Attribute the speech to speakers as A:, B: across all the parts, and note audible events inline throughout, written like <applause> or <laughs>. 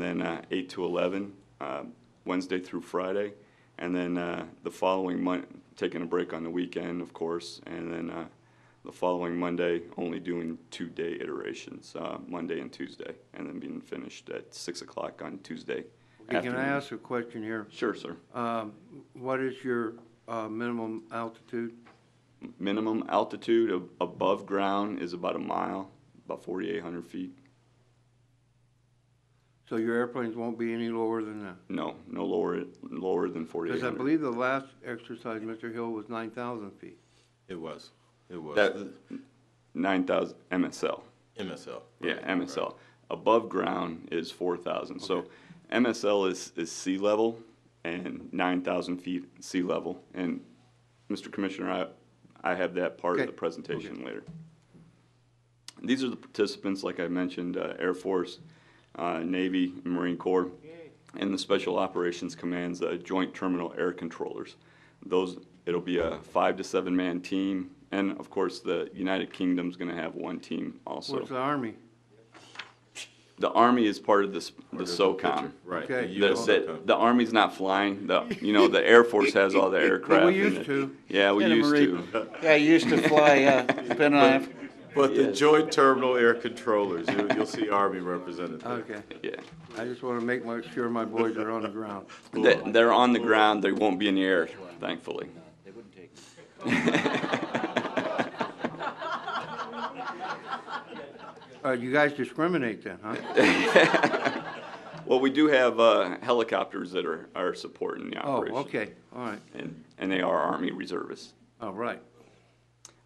A: then uh, 8 to 11, uh, Wednesday through Friday, and then uh, the following month, taking a break on the weekend, of course, and then uh, the following Monday, only doing two-day iterations, uh, Monday and Tuesday, and then being finished at 6 o'clock on Tuesday
B: Hey, Can I
A: afternoon.
B: ask a question here?
A: Sure, sir.
B: Um, What is your uh, minimum altitude?
A: Minimum altitude of above ground is about a mile, about 4,800 feet.
B: So your airplanes won't be any lower than that?
A: No, no lower, lower than 4,800.
B: Because I believe the last exercise, Mr. Hill, was 9,000 feet.
C: It was, it was.
A: That- 9,000 MSL.
C: MSL.
A: Yeah,
C: right,
A: MSL.
C: right.
A: Above ground is 4,000. So MSL is, is sea level and 9,000 feet sea level. And Mr. Commissioner, I, I have that part of
B: Okay.
A: the presentation later. These are the participants, like I mentioned, uh, Air Force, uh, Navy, Marine Corps, and the Special Operations Command's uh, Joint Terminal Air Controllers. Those, it'll be a five to seven man team. And of course, the United Kingdom's going to have one team also.
B: Where's the Army?
A: The Army is part of this, the
C: There's a picture,
A: SOCOM.
C: Right.
B: Okay.
A: The, the, the Army's not flying, the, you know, the Air Force has all the aircraft.
B: we
A: and
B: used
A: the-
B: to.
A: Yeah, we
D: Yeah,
A: used
D: Marie.
A: to.
D: Yeah, I used to fly, <laughs> uh, been on,
C: But the
A: Yes.
C: Joint Terminal Air Controllers, you- you'll see Army represented there.
B: Okay,
A: Yeah.
B: I just want to make my- sure my boys are on the ground.
A: They, they're on the ground, they won't be in the air, thankfully.
D: they wouldn't take me.
B: Uh, You guys discriminate then,
A: <laughs>
B: huh?
A: Well, we do have, uh, helicopters that are, are supporting the
B: Oh,
A: operation.
B: okay, all right,
A: And, and they are Army reservists.
B: all right.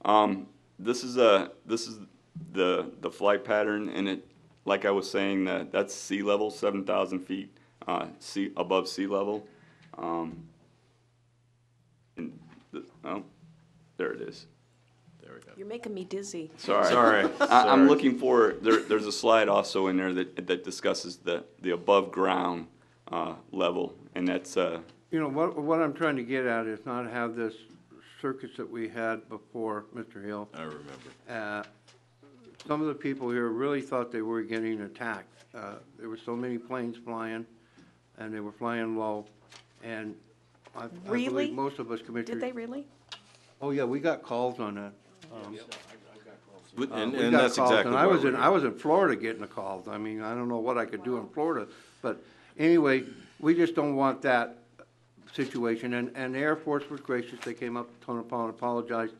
A: Um, this is a, this is the, the flight pattern and it, like I was saying, that, that's sea level, seven thousand feet, uh, sea, above sea level. Um, and, the- oh, there it is.
C: There we go.
E: You're making me dizzy.
A: Sorry.
C: Sorry,
A: <laughs> I, I'm
C: sorry.
A: looking for, there, there's a slide also in there that, that discusses the, the above ground, uh, level. And that's, uh,
B: You know, what, what I'm trying to get at is not have this circus that we had before, Mr. Hill.
C: I remember.
B: uh, some of the people here really thought they were getting attacked. Uh, There were so many planes flying, and they were flying low, and I I
E: Really?
B: believe most of us
E: Did they
B: commissioners.
E: really?
B: Oh, yeah, we got calls on that.
C: But-
B: Uh,
C: And,
B: we
C: and
B: got
C: that's
B: calls,
C: exactly
B: and I
C: why
B: was
C: we're
B: in,
C: here.
B: I was in Florida getting the calls. I mean, I don't know what I could do in Florida, but anyway, we just don't want that situation. And, and the Air Force was gracious. They came up, to Tonopah, and apologized.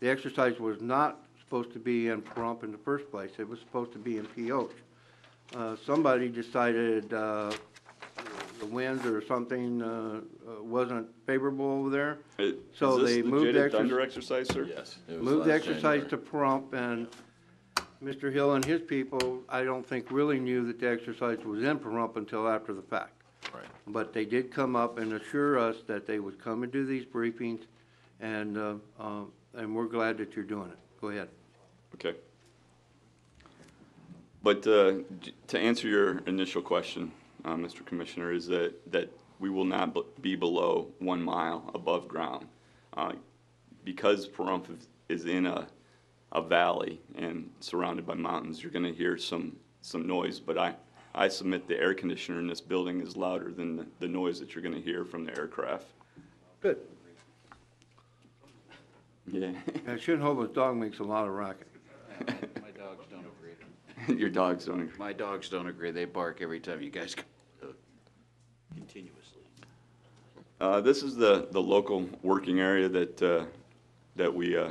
B: The exercise was not supposed to be in Pahrump in the first place. It was supposed to be in Pioche. Uh, somebody decided, uh, the winds or something, uh, uh, wasn't favorable over there.
A: is
B: So they
A: this
B: moved
A: legit
B: the
A: a
B: exercise-
A: Thunder exercise, sir?
C: Yes. it was
B: Move the
C: last
B: exercise to
C: January.
B: Pahrump, and Mr. Hill and his people, I don't think really knew that the exercise was in Pahrump until after the fact.
C: Right.
B: But they did come up and assure us that they would come and do these briefings, and, uh, um, and we're glad that you're doing it. Go ahead.
A: Okay. But uh, j- to answer your initial question, uh, Mr. Commissioner, is that, that we will not b- be below one mile above ground. Uh, Because Pahrump is- is in a, a valley and surrounded by mountains, you're going to hear some, some noise. But I, I submit the air conditioner in this building is louder than the- the noise that you're going to hear from the aircraft.
B: Good.
A: Yeah, <laughs>
B: And Shinhobin's dog makes a lot of racket.
D: My dogs don't agree.
A: your dogs don't agree.
D: My dogs don't agree. They bark every time you guys come. Continuously.
A: Uh, this is the, the local working area that, uh, that we, uh,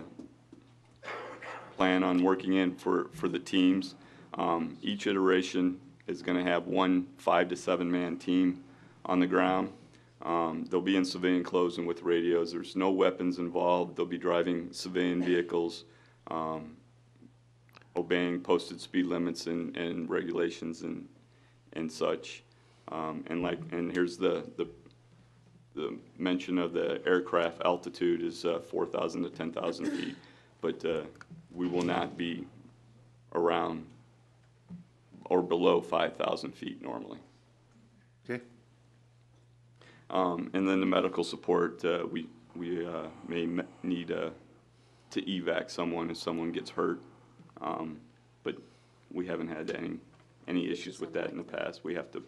A: plan on working in for, for the teams. Um, each iteration is gonna have one five to seven man team on the ground. Um, they'll be in civilian clothes and with radios. There's no weapons involved. They'll be driving civilian vehicles, um, obeying posted speed limits and, and regulations and, and such. Um, and like, and here's the, the the mention of the aircraft altitude is uh, 4,000 to 10,000 feet, but uh, we will not be around or below 5,000 feet normally.
B: Okay?
A: Um, And then the medical support, uh, we, we uh, may me- need uh, to evac someone if someone gets hurt, Um, but we haven't had any, any issues with that in the past. We have to